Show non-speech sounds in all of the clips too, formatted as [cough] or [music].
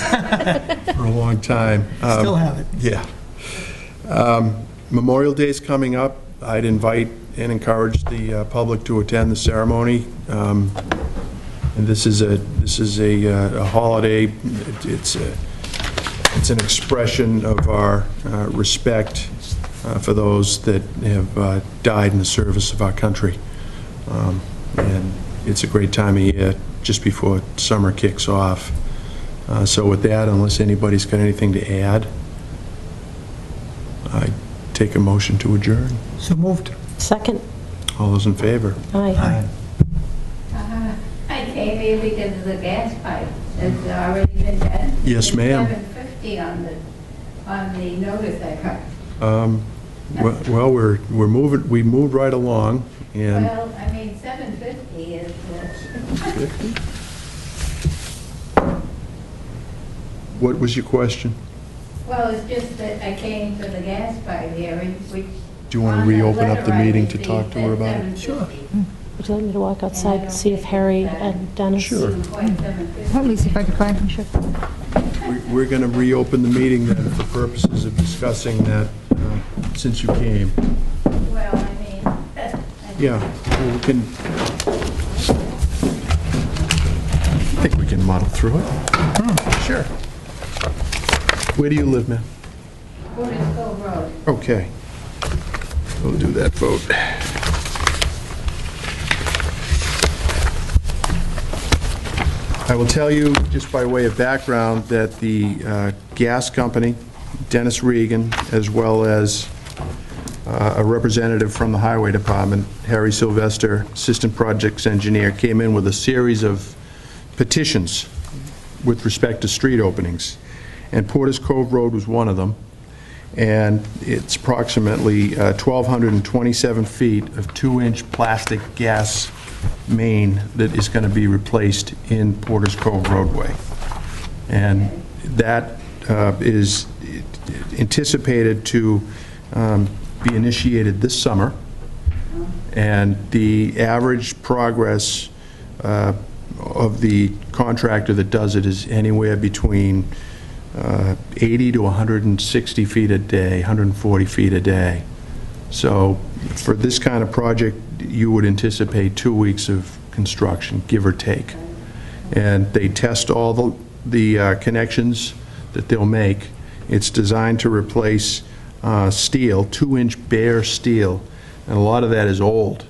for a long time. Um, Still have it. [laughs] Yeah. Um, Memorial Day's coming up. I'd invite and encourage the uh, public to attend the ceremony. Um, And this is a, this is a uh, a holiday, It- it's, a- it's an expression of our uh, respect uh, for those that have uh, died in the service of our country. Um, And it's a great time of year, just before summer kicks off. Uh, So with that, unless anybody's got anything to add, I take a motion to adjourn. So moved. Second? All those in favor? Aye. Aye. Uh, I came here because of the gas pipe. It's already been done. Yes, ma'am. Seven fifty on the, on the notice I got. Um, we- Well, we're, we're moving, we moved right along, and Well, I mean, seven fifty is, uh, what was your question? [laughs] well, it's just that I came for the gas pipe hearing, which. Do you wanna on the reopen up the letter I meeting to received talk to her at about it? 7:50. Sure. Would you like me to walk outside and see if Harry and Dennis? Sure. Hmm. Quite 7:50. Let me see if I can find him. Sure. We- We're going to reopen the meeting then for purposes of discussing that, uh, since you came. Well, I mean. [laughs] I- Yeah, well, we can, I think we can muddle through it. Sure. Where do you live, ma'am? Curtis Cove Road. Okay. We'll do that vote. I will tell you, just by way of background, that the uh, gas company, Dennis Regan, as well as uh, a representative from the Highway Department, Harry Sylvester, Assistant Projects Engineer, came in with a series of petitions with respect to street openings. And Porter's Cove Road was one of them. And it's approximately uh, 1,227 feet of two-inch plastic gas main that is going to be replaced in Porter's Cove roadway. And that uh, is anticipated to um, be initiated this summer. And the average progress uh, of the contractor that does it is anywhere between uh, 80 to 160 feet a day, 140 feet a day. So for this kind of project, you would anticipate two weeks of construction, give or take. And they test all the, the uh, connections that they'll make. It's designed to replace uh, steel, two-inch bare steel, and a lot of that is old.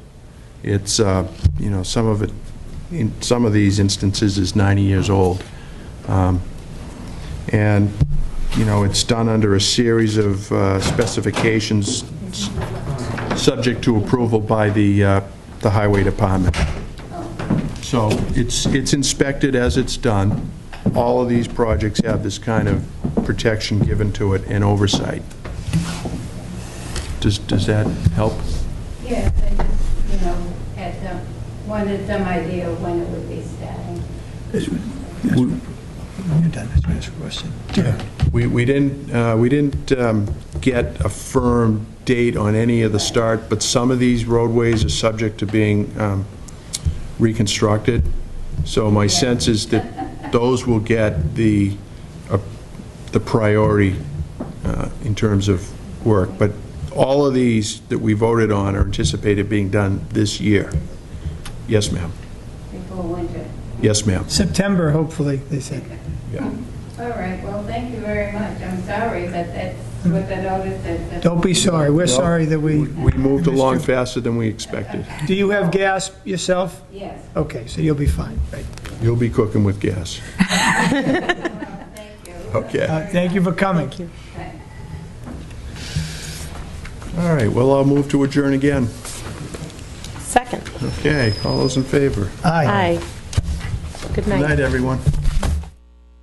It's, uh, you know, some of it, in some of these instances, is 90 years old. Um, and, you know, it's done under a series of uh, specifications s- subject to approval by the, uh, the Highway Department. So it's, it's inspected as it's done. All of these projects have this kind of protection given to it and oversight. Does, does that help? Yes, I just, you know, had some, wanted some idea of when it would be starting. You're done, that's my last question. We, we didn't, uh, we didn't um, get a firm date on any of the start, but some of these roadways are subject to being um, reconstructed. So my sense is that those will get the, uh, the priority uh, in terms of work. But all of these that we voted on are anticipated being done this year. Yes, ma'am. Before winter. Yes, ma'am. September, hopefully, they said. Yeah. All right, well, thank you very much. I'm sorry, but that's what the notice said. Don't be sorry, we're sorry that we, We moved along faster than we expected. do you have gas yourself? Yes, Okay, so you'll be fine, right. You'll be cooking with gas. [laughs] thank you. Okay. Uh, Thank you for coming. All right, well, I'll move to adjourn again. Second? Okay, all those in favor? Aye. Aye. Good Good night. night, everyone.